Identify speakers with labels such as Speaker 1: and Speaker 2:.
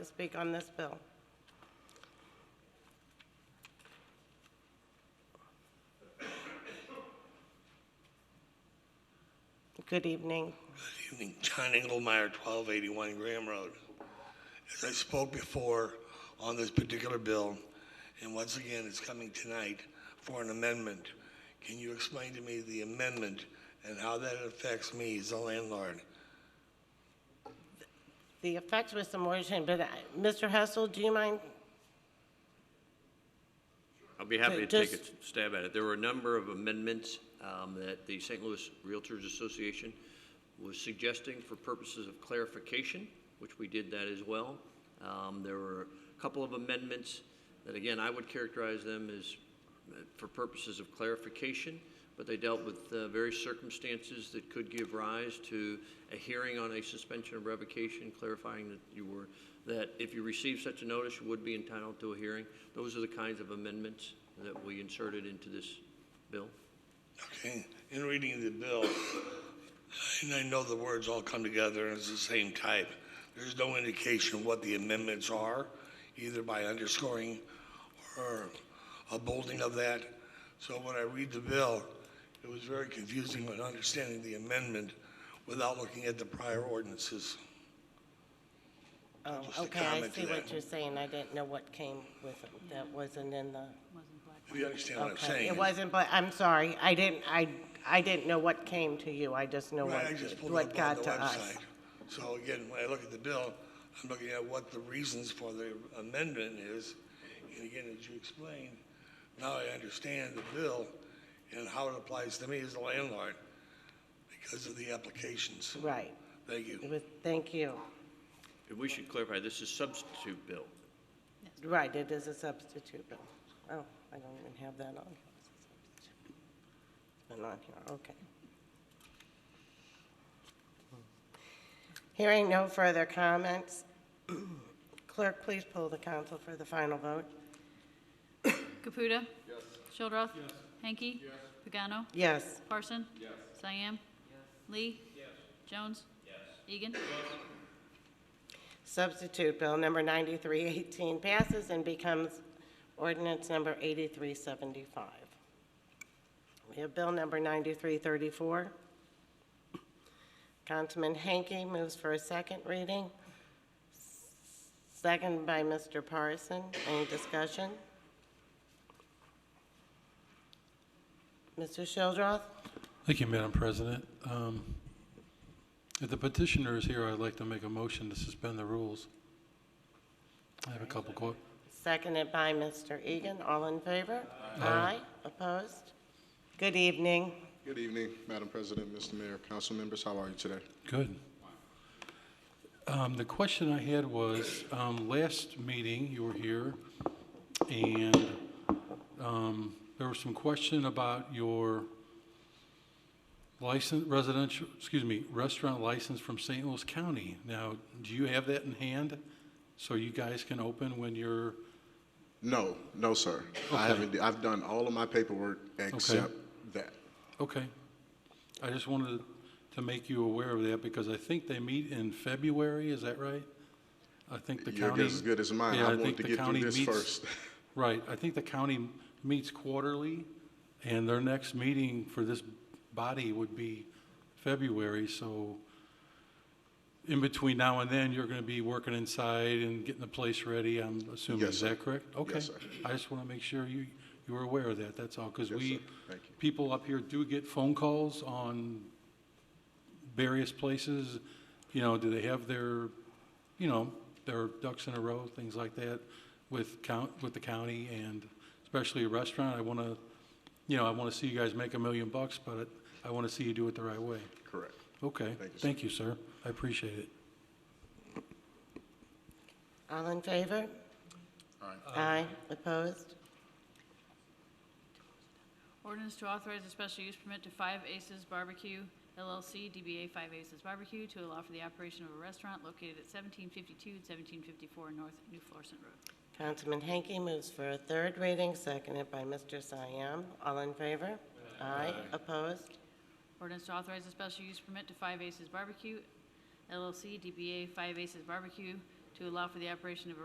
Speaker 1: to speak on this bill? Good evening.
Speaker 2: evening, John Engelmeyer, 1281 Graham Road. As I spoke before on this particular bill, and once again, it's coming tonight for an amendment. Can you explain to me the amendment and how that affects me as a landlord?
Speaker 1: The effects was some motion, but uh, Mr. Hessel, do you mind?
Speaker 2: Uh,
Speaker 3: I'll be happy to take
Speaker 1: Just-
Speaker 3: a stab at it. There were a number of amendments um, that the St. Louis Realtors Association was suggesting for purposes of clarification, which we did that as well. Um, There were a couple of amendments that, again, I would characterize them as uh, for purposes of clarification, but they dealt with uh, various circumstances that could give rise to a hearing on a suspension or revocation, clarifying that you were, that if you received such a notice, you would be entitled to a hearing. Those are the kinds of amendments that we inserted into this bill.
Speaker 2: Okay, in reading the bill, and I know the words all come together and it's the same type, there's no indication what the amendments are, either by underscoring or a bolding of that. So when I read the bill, it was very confusing when understanding the amendment without looking at the prior ordinances.
Speaker 1: Oh,
Speaker 2: Just a
Speaker 1: Um, okay, I
Speaker 2: comment to
Speaker 1: see what
Speaker 2: that.
Speaker 1: you're saying. I didn't know what came with it. That wasn't in the.
Speaker 2: If you understand what I'm
Speaker 1: Okay,
Speaker 2: saying.
Speaker 1: it wasn't, but I'm sorry, I didn't, I, I didn't know what came to you, I just know what,
Speaker 2: Right, I just pulled
Speaker 1: what
Speaker 2: it up on
Speaker 1: got
Speaker 2: the
Speaker 1: to us.
Speaker 2: website. So again, when I look at the bill, I'm looking at what the reasons for the amendment is. And again, as you explained, now I understand the bill and how it applies to me as a landlord because of the applications.
Speaker 1: Right,
Speaker 2: Thank you.
Speaker 1: it was, thank you.
Speaker 3: And we should clarify, this is substitute bill.
Speaker 1: Right, it is a substitute bill. Oh, I don't even have that on. It's been on here, okay. Hearing no further comments, clerk, please pull the council for the final vote.
Speaker 4: Caputa. Yes. Shildroth. Yes. Hanky. Yes. Pagano.
Speaker 1: Yes.
Speaker 4: Parson. Yes. Cyan. Lee. Yes. Jones. Yes. Egan.
Speaker 1: Substitute Bill Number 9318 passes and becomes ordinance Number 8375. We have Bill Number 9334. Councilman Hanky moves for a second reading, second by Mr. Parson. Any discussion? Mr. Shildroth?
Speaker 5: Thank you, Madam President. Um, If the petitioner is here, I'd like to make a motion to suspend the rules. I have a couple quote.
Speaker 1: Seconded by Mr. Egan. All in favor? Aye. Opposed? Good evening.
Speaker 6: Good evening, Madam President, Mr. Mayor, council members. How are you today?
Speaker 5: Good. Um, The question I had was, um, last meeting, you were here, and um, there was some question about your license, residential, excuse me, restaurant license from St. Louis County. Now, do you have that in hand, so you guys can open when you're
Speaker 6: No, no, sir. I haven't, I've done all of my paperwork except that.
Speaker 5: Okay. I just wanted to make you aware of that because I think they meet in February, is that right? I think the
Speaker 6: Your
Speaker 5: county.
Speaker 6: guess is good as mine.
Speaker 5: Yeah,
Speaker 6: I
Speaker 5: think
Speaker 6: wanted to
Speaker 5: the
Speaker 6: get through
Speaker 5: county
Speaker 6: this
Speaker 5: meets-
Speaker 6: first.
Speaker 5: Right, I think the county meets quarterly and their next meeting for this body would be February, so in between now and then, you're gonna be working inside and getting the place ready, I'm assuming,
Speaker 6: Yes,
Speaker 5: is
Speaker 6: sir.
Speaker 5: that correct? Okay.
Speaker 6: sir.
Speaker 5: I just wanna make sure you, you were aware of that, that's all, because
Speaker 6: Yes,
Speaker 5: we,
Speaker 6: sir. Thank you.
Speaker 5: people up here do get phone calls on various places, you know, do they have their, you know, their ducks in a row, things like that with count, with the county and especially a restaurant. I want to, you know, I want to see you guys make a million bucks, but I want to see you do it the right way.
Speaker 6: Correct.
Speaker 5: Okay.
Speaker 6: Thank you, sir.
Speaker 5: Thank you, sir. I appreciate it.
Speaker 1: All in favor? Aye. Opposed?
Speaker 4: Ordinance to authorize a special use permit to Five Aces Barbecue LLC, DBA Five Aces Barbecue, to allow for the operation of a restaurant located at 1752 and 1754 North New Florissant Road.
Speaker 1: Councilman Hanky moves for a third reading, seconded by Mr. Siam. All in favor? Aye. Opposed?
Speaker 4: Ordinance to authorize a special use permit to Five Aces Barbecue LLC, DBA Five Aces Barbecue, to to allow for the operation of a